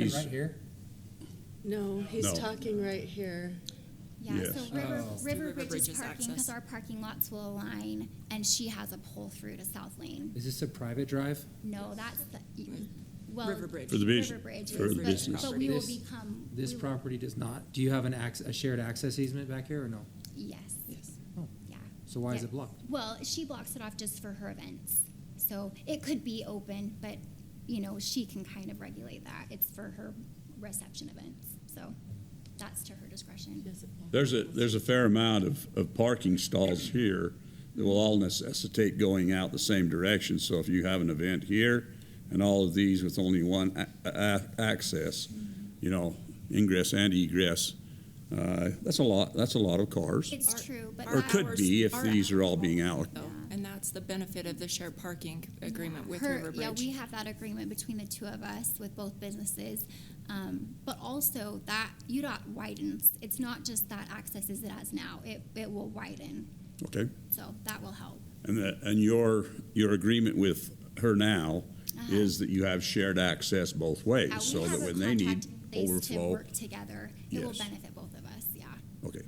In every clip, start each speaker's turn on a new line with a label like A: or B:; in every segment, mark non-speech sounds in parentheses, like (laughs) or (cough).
A: He's-
B: Right here?
C: No, he's
A: No.
C: talking right here.
D: Yeah, so
A: Yes.
D: River,
B: Oh.
D: River
E: River
D: Bridge is
E: Bridge's
D: parking because
E: access.
D: our parking lots will align and she has a pull through to South Lane.
B: Is this a private drive?
D: No, that's the, well.
E: River Bridge.
A: For the business.
D: River Bridge
A: For
D: is,
A: the
D: but-
A: business.
D: But we will
B: This-
D: become.
B: This
D: we will-
B: property does not. Do you have an acc a shared access easement back here or no?
D: Yes,
E: Yes.
B: Oh,
D: yeah.
B: So why is
D: Yeah.
B: it blocked?
D: Well, she blocks it off just for her events. So it could be open, but, you know, she can kind of regulate that. It's for her reception events, so that's to her discretion.
A: There's a, there's a fair amount of, of parking stalls here that will all necessitate going out the same direction. So if you have an event here and all of these with only one a- a- access, you know, ingress and egress, uh, that's a lot, that's a lot of cars.
D: It's
E: Our-
D: true, but.
A: Or
E: our
D: that-
A: could be if
E: Our
A: these are all being out.
E: though,
D: Yeah.
E: and that's the benefit of the shared parking agreement with
D: Her-
E: River
D: Yeah, we
E: Bridge.
D: have that agreement between the two of us with both businesses. Um, but also that UDOT widens. It's not just that access as it has now. It, it will widen.
A: Okay?
D: So that will help.
A: And that, and your, your agreement with her now is that you have shared access both ways.
D: Uh-huh. Uh, we
A: So
D: have
A: that
D: a
A: when they need
D: contract in place To
A: overflow,
D: work together, it will
A: Yes.
D: benefit both of us, yeah.
A: okay.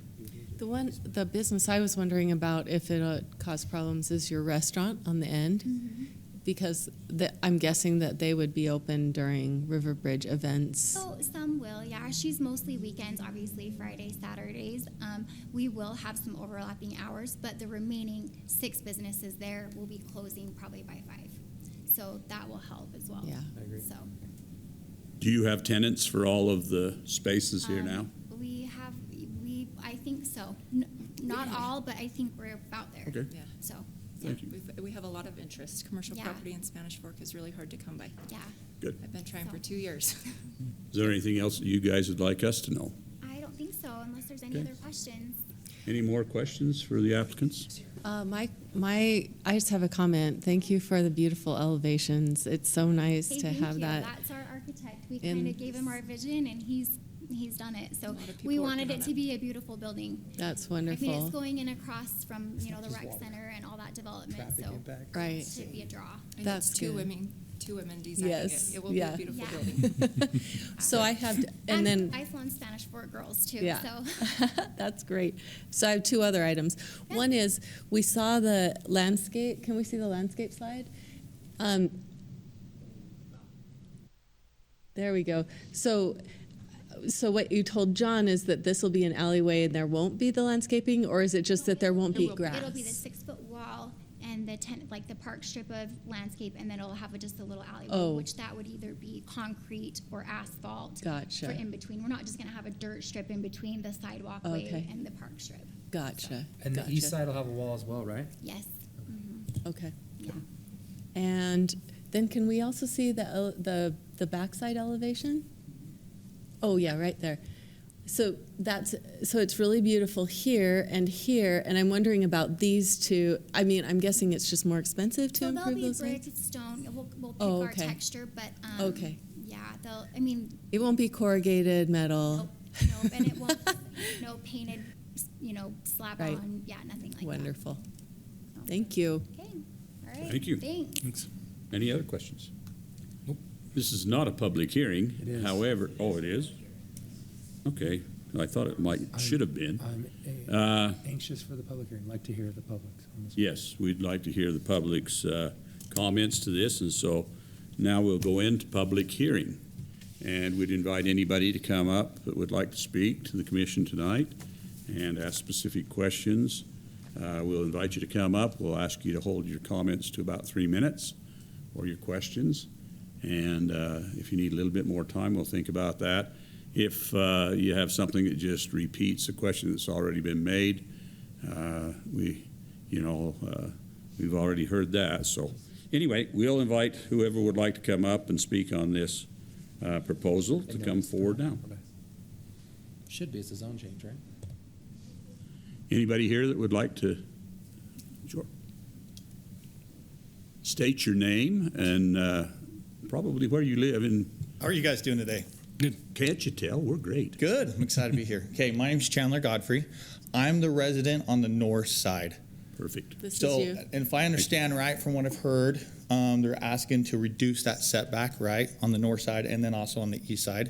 F: The one, the business I was wondering about if it uh, caused problems is your restaurant on the end, because the, I'm guessing that they would be open during Riverbridge events.
D: So some will, yeah. She's mostly weekends, obviously Fridays, Saturdays. Um, we will have some overlapping hours, but the remaining six businesses there will be closing probably by five. So that will help as well.
F: Yeah.
B: I agree.
D: So
A: Do you have tenants for all of the spaces here
D: um,
A: now?
D: we have we I think so. N- not all, but I think we're about there.
A: Okay.
E: Yeah.
D: So
E: Yeah,
A: Thank you.
E: we've- We have a lot of interest. Commercial
D: Yeah.
E: property in Spanish Fork is really hard to come by.
D: yeah,
A: Good.
E: I've been trying for
D: So-
E: two years. (laughs)
A: Is there anything else that you guys would like us to know?
D: I don't think so unless there's any
A: Okay.
D: other questions.
A: Any more questions for the applicants?
F: Uh, my, my, I just have a comment. Thank you for the beautiful elevations. It's so nice
D: Hey,
F: to
D: thank
F: have
D: you.
F: that.
D: That's our architect. We
F: in-
D: kind of gave him our vision, and he's he's done it. So
E: lot of people
D: we wanted
E: working
D: it
E: on
D: to
E: it.
D: be a beautiful building.
F: That's
D: I mean, it's
F: wonderful.
D: going in across from you know
B: not
D: the
B: just
D: rec
B: water.
D: center and all that development.
B: Traffic
D: so
B: impact?
F: Right.
D: it should be a draw.
E: And
F: That's
E: it's two
F: good.
E: women, two women designing
F: Yes,
E: it. It will be a
F: yeah.
E: beautiful
D: Yeah.
E: building.
F: So I have,
D: I've-
F: and then.
D: I've flown Spanish Fort girls too.
F: Yeah. (laughs)
D: So (laughs)
F: That's great. So I have two other items.
D: Yeah.
F: One is we saw the landscape. Can we see the landscape slide? Um, there we go. So, so what you told John is that this will be an alleyway and there won't be the landscaping, or is it just that there won't
E: There
F: be
E: will be.
F: grass?
D: it'll be the six foot wall and the tent like the park strip of landscape, and then it'll have a, just a little alleyway,
F: Oh.
D: which that would either be concrete or asphalt.
F: Gotcha.
D: For in between, we're not just gonna have a dirt strip in between the sidewalk
F: Okay.
D: way and the park strip.
F: Gotcha.
B: And the
F: gotcha.
B: east side will have a wall as well, right?
D: Yes. Mhm.
F: Okay.
D: Yeah.
F: And then can we also see the, ele- the, the backside elevation? Oh, yeah, right there. So that's, so it's really beautiful here and here, and I'm wondering about these two. I mean, I'm guessing it's just more expensive to
D: So they'll
F: improve
D: be
F: those ones?
D: brick, it's stone, we'll, we'll pick
F: Oh,
D: our
F: okay.
D: texture, but, um,
F: Okay.
D: yeah, they'll, I mean,
F: It won't be corrugated
D: nope,
F: metal.
D: nope, and
F: (laughs)
D: it won't, no painted, you know, slap
F: Right.
D: on, yeah, nothing like that.
F: Wonderful. Thank you.
D: Okay, all right.
A: Thank you.
D: Thanks.
A: Any other questions? This is not a public hearing.
B: It is.
A: However, oh, it is? Okay, I thought it might, should have been.
B: I'm a-
A: Uh,
B: anxious for the public hearing, like to hear the public's. on this.
A: Yes, we'd like to hear the public's uh, comments to this, and so now we'll go into public hearing. And we'd invite anybody to come up that would like to speak to the commission tonight and ask specific questions. Uh, We'll invite you to come up. We'll ask you to hold your comments to about three minutes or your questions. And uh, if you need a little bit more time, we'll think about that. If uh, you have something that just repeats a question that's already been made, uh, we, you know, uh, we've already heard that. So anyway, we'll invite whoever would like to come up and speak on this uh, proposal to come forward now.
B: Should be, it's a zone change, right?
A: Anybody here that would like to? Sure. State your name and uh, probably where you live. And
G: How are you guys doing today?
A: can't you tell? We're great.
G: Good. I'm excited to be here. Okay, my name's Chandler Godfrey. I'm the resident on the north side.
A: Perfect.
F: This
G: so,
F: is you.
G: and if I understand right from what I've heard, Um, they're asking to reduce that setback, right, on the north side and then also on the east side.